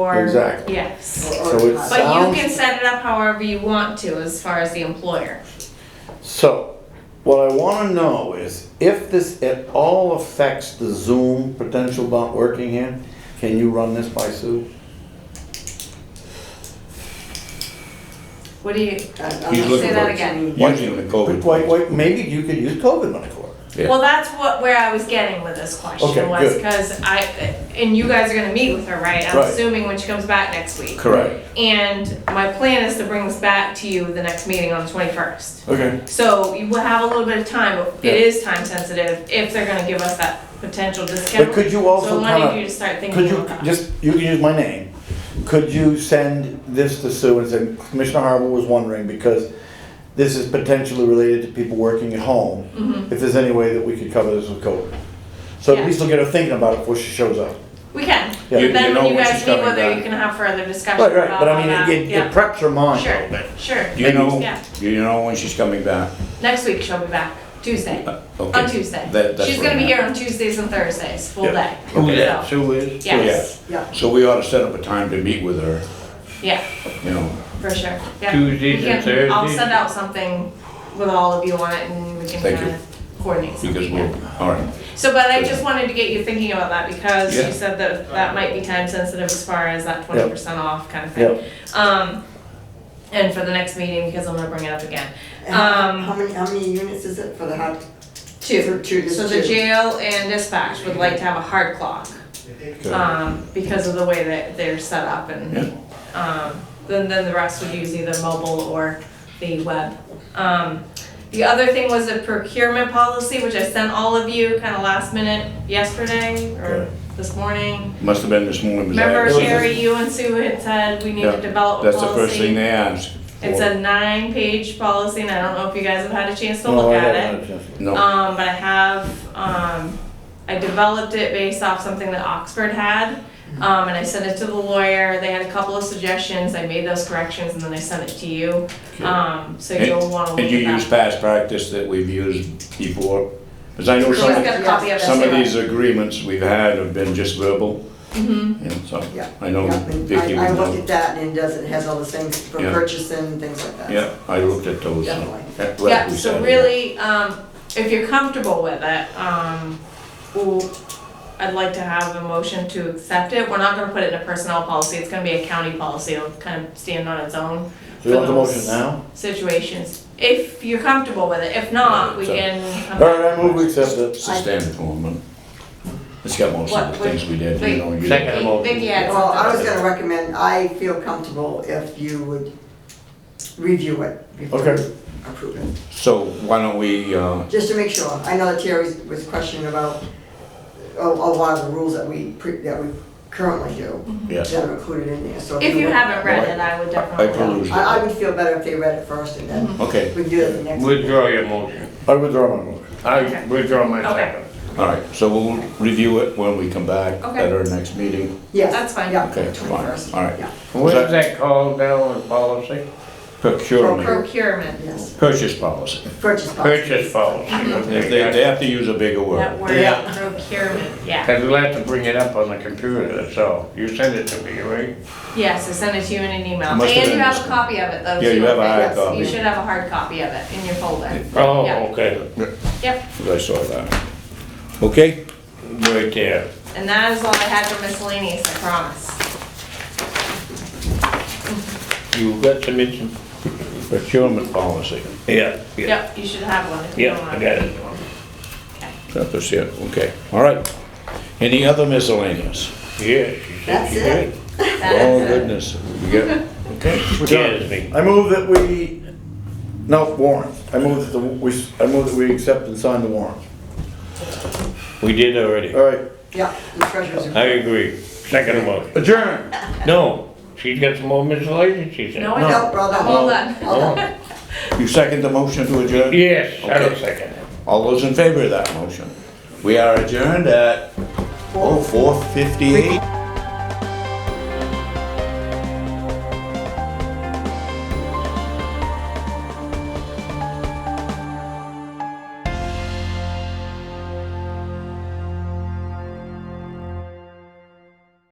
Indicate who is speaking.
Speaker 1: or.
Speaker 2: Exactly.
Speaker 1: Yes.
Speaker 2: So
Speaker 1: But
Speaker 2: it
Speaker 1: you
Speaker 2: sounds,
Speaker 1: can set it up however you want to as far as the employer.
Speaker 2: so what I wanna know is if this at all affects the Zoom potential not working here, can you run this by Sue?
Speaker 1: What do you,
Speaker 3: He's looking
Speaker 1: Say that
Speaker 3: for-
Speaker 1: again.
Speaker 3: Using the COVID.
Speaker 2: Wait, wait, maybe you could use COVID money for it.
Speaker 3: Yeah.
Speaker 1: well, that's what, where I was getting with this
Speaker 2: Okay,
Speaker 1: question was,
Speaker 2: good.
Speaker 1: cause I, and you guys are gonna meet with her, right? I'm
Speaker 2: Right.
Speaker 1: assuming when she comes back next week.
Speaker 2: Correct.
Speaker 1: And my plan is to bring this back to you the next meeting on the twenty-first.
Speaker 2: Okay.
Speaker 1: So you will have a little bit of time, but
Speaker 2: Yeah.
Speaker 1: it is time sensitive if they're gonna give us that potential discount.
Speaker 2: But could you
Speaker 1: So
Speaker 2: also
Speaker 1: I wanted
Speaker 2: kinda,
Speaker 1: you to start thinking
Speaker 2: could you,
Speaker 1: about that.
Speaker 2: just, you can use my name. Could you send this to Sue and say Commissioner Harbour was wondering because this is potentially related to people working at home.
Speaker 1: Mhm.
Speaker 2: If there's any way that we could cover this with COVID. So
Speaker 1: Yeah.
Speaker 2: at least we'll get her thinking about it before she shows up.
Speaker 1: We can,
Speaker 2: Yeah.
Speaker 1: but
Speaker 2: You-
Speaker 3: you
Speaker 1: then
Speaker 3: know
Speaker 1: when you
Speaker 3: when
Speaker 1: guys meet
Speaker 3: she's coming
Speaker 1: with her,
Speaker 3: back.
Speaker 1: you can have further discussion
Speaker 2: Right, right,
Speaker 1: about
Speaker 2: but I
Speaker 1: all
Speaker 2: mean,
Speaker 1: that,
Speaker 2: it- it, it
Speaker 1: yeah.
Speaker 2: preps her mind a
Speaker 1: Sure.
Speaker 2: little bit.
Speaker 1: Sure,
Speaker 3: You know,
Speaker 1: yeah,
Speaker 3: you know when she's coming back?
Speaker 1: next week she'll be back, Tuesday,
Speaker 3: Uh,
Speaker 1: on
Speaker 3: Okay.
Speaker 1: Tuesday.
Speaker 3: That- that's
Speaker 1: She's
Speaker 3: what I
Speaker 1: gonna be
Speaker 3: meant.
Speaker 1: here on Tuesdays and Thursdays, full
Speaker 2: Yeah.
Speaker 1: day.
Speaker 3: Okay.
Speaker 1: So,
Speaker 3: Sue is?
Speaker 1: Yes,
Speaker 3: So we ought to set up a time to meet with her,
Speaker 1: yeah,
Speaker 3: you know.
Speaker 1: for sure, yeah.
Speaker 4: Tuesdays
Speaker 1: We can-
Speaker 4: and
Speaker 1: I'll
Speaker 4: Thursdays?
Speaker 1: send out something with all of you on it and we can
Speaker 3: Thank
Speaker 1: kind
Speaker 3: you.
Speaker 1: of coordinate
Speaker 3: Because
Speaker 1: something.
Speaker 3: we'll,
Speaker 1: yeah.
Speaker 3: all right,
Speaker 1: So, but I just wanted to get you thinking about that because
Speaker 3: Yeah.
Speaker 1: you said that that might be time sensitive as far as that twenty percent off kind of thing.
Speaker 2: Yeah,
Speaker 1: Um, and for the next meeting, because I'm gonna bring it up again.
Speaker 5: And how-
Speaker 1: Um,
Speaker 5: How many, how many units is it for the hot?
Speaker 1: Two.
Speaker 5: for Two, just
Speaker 1: So the
Speaker 5: two.
Speaker 1: jail and dispatch would like to have a hard clock,
Speaker 3: Uh,
Speaker 1: um, because of the way that they're set up and, um, then, then the rest would use either mobile or the web. Um, the other thing was a procurement policy, which I sent all of you kind of last minute yesterday or
Speaker 2: Okay.
Speaker 1: this morning.
Speaker 3: must have been this morning. 'cause I
Speaker 1: Remember
Speaker 3: haven't seen it.
Speaker 1: Sherry, you and Sue had said we need
Speaker 3: Yeah,
Speaker 1: to develop a policy?
Speaker 3: That's the first thing they ask.
Speaker 1: It's a nine-page policy, and I don't know if you guys have had a chance to
Speaker 2: No,
Speaker 1: look
Speaker 2: I
Speaker 1: at
Speaker 2: haven't
Speaker 1: it.
Speaker 2: had a chance to-
Speaker 3: No,
Speaker 1: Um, but I have, um, I developed it based off something that Oxford had. Um, and I sent it to the lawyer, they had a couple of suggestions, I made those corrections, and then I sent it to you. Um, so you'll wanna look
Speaker 3: and you
Speaker 1: at
Speaker 3: use
Speaker 1: that.
Speaker 3: past practice that we've used before? Because I know
Speaker 1: She's
Speaker 3: some,
Speaker 1: got a copy of this.
Speaker 3: some of
Speaker 1: too.
Speaker 3: these agreements we've had have been just verbal,
Speaker 1: Mhm.
Speaker 3: and so,
Speaker 5: Yeah.
Speaker 3: I know
Speaker 5: Yeah, and
Speaker 3: Vicky
Speaker 5: I, I
Speaker 3: would
Speaker 5: looked
Speaker 3: know.
Speaker 5: at that and it does, it has all the things for
Speaker 3: Yeah.
Speaker 5: purchasing and things like that.
Speaker 3: Yeah, I looked at those. so-
Speaker 5: Definitely.
Speaker 3: like
Speaker 1: Yeah,
Speaker 3: we
Speaker 1: so
Speaker 3: said,
Speaker 1: really, um, if you're comfortable with it, um, ooh, I'd like to have a motion to accept it. We're not gonna put it in a personnel policy, it's gonna be a county policy, it'll kind of stand on its own
Speaker 2: Do you want the motion now?
Speaker 1: situations. If you're comfortable with it, if not, we
Speaker 3: Yeah, so-
Speaker 1: can come
Speaker 2: All right, I
Speaker 1: back.
Speaker 2: move we accept it.
Speaker 3: It's a standard form, but it's got most of the
Speaker 1: What-
Speaker 3: things we did, you
Speaker 1: wait.
Speaker 3: know. you-
Speaker 4: Second.
Speaker 1: Vicky had
Speaker 5: Well, I was
Speaker 1: something.
Speaker 5: gonna recommend, I feel comfortable if you would review it before
Speaker 2: Okay.
Speaker 5: you approve it.
Speaker 3: So why don't we, uh,
Speaker 5: Just to make sure, I know that Terry was questioning about a, a lot of the rules that we, pre- that we currently do,
Speaker 3: yes,
Speaker 5: that are included in there, so.
Speaker 1: If you
Speaker 5: would-
Speaker 1: haven't read
Speaker 3: Right.
Speaker 1: it, I would
Speaker 3: I
Speaker 1: definitely.
Speaker 3: perused
Speaker 5: I, I
Speaker 3: it.
Speaker 5: would feel better if they read it first and
Speaker 1: Mm-hmm.
Speaker 5: then
Speaker 3: Okay,
Speaker 5: we can do it the next.
Speaker 4: Withdraw your motion.
Speaker 2: I withdraw my motion.
Speaker 4: I
Speaker 1: Okay.
Speaker 4: withdraw my
Speaker 1: Okay.
Speaker 4: second.
Speaker 3: all right, so we'll review it when we come back
Speaker 1: Okay.
Speaker 3: at our next meeting.
Speaker 5: Yes.
Speaker 1: That's fine.
Speaker 5: Yeah,
Speaker 3: Okay, fine.
Speaker 5: 21st.
Speaker 3: All right.
Speaker 5: Yeah,
Speaker 4: What is that called now in policy?
Speaker 3: Procurement,
Speaker 1: Procurement.
Speaker 5: yes.
Speaker 3: purchase policy.
Speaker 5: Purchase policy.
Speaker 4: Purchase policy.
Speaker 1: Mm-hmm.
Speaker 3: If They, they have to use a bigger
Speaker 1: That
Speaker 3: word.
Speaker 1: word,
Speaker 5: Yeah.
Speaker 1: procurement, yeah.
Speaker 4: Because we'll have to bring it up on the computer, that's all. You sent it to me, right?
Speaker 1: Yes, I sent it to you in an email.
Speaker 3: It must have
Speaker 1: And you
Speaker 3: been
Speaker 1: have a
Speaker 3: this-
Speaker 1: copy of it, though.
Speaker 3: Yeah,
Speaker 1: too,
Speaker 3: you have a
Speaker 1: right?
Speaker 3: hard
Speaker 5: Yes, you
Speaker 1: You
Speaker 3: copy,
Speaker 1: should have a hard copy of it in your folder.
Speaker 4: Oh,
Speaker 1: Yeah.
Speaker 4: okay.
Speaker 1: Yep,
Speaker 3: I saw that. Okay,
Speaker 4: Right there.
Speaker 1: and that is all I had for miscellaneous, I promise.
Speaker 4: You got some mention?
Speaker 3: procurement policy,
Speaker 4: Yeah. Yeah,
Speaker 1: Yep, you should have one if you
Speaker 4: Yeah,
Speaker 1: don't
Speaker 4: I
Speaker 1: want.
Speaker 4: got it.
Speaker 3: that's just it, okay, all right. Any other miscellaneous?
Speaker 4: Yeah, she said
Speaker 5: That's
Speaker 4: she
Speaker 5: it.
Speaker 4: did.
Speaker 3: Oh goodness, we got, okay.
Speaker 4: Scares me.
Speaker 2: I move that we, no, warrant. I move that the, we, I move that we accept and sign the warrant.
Speaker 4: We did already.
Speaker 2: All right,
Speaker 5: Yeah, the treasurer's.
Speaker 4: I agree. Second motion.
Speaker 2: adjourn.
Speaker 4: No, she's got some more miscellations, she said.
Speaker 1: No, I
Speaker 2: No.
Speaker 1: don't.
Speaker 5: No, brother.
Speaker 1: Hold on.
Speaker 4: Oh,
Speaker 3: You second the motion to adjourn?
Speaker 4: Yes, I don't
Speaker 3: Okay.
Speaker 4: second it.
Speaker 3: All those in favor of that motion? We are adjourned at, oh, 4:58.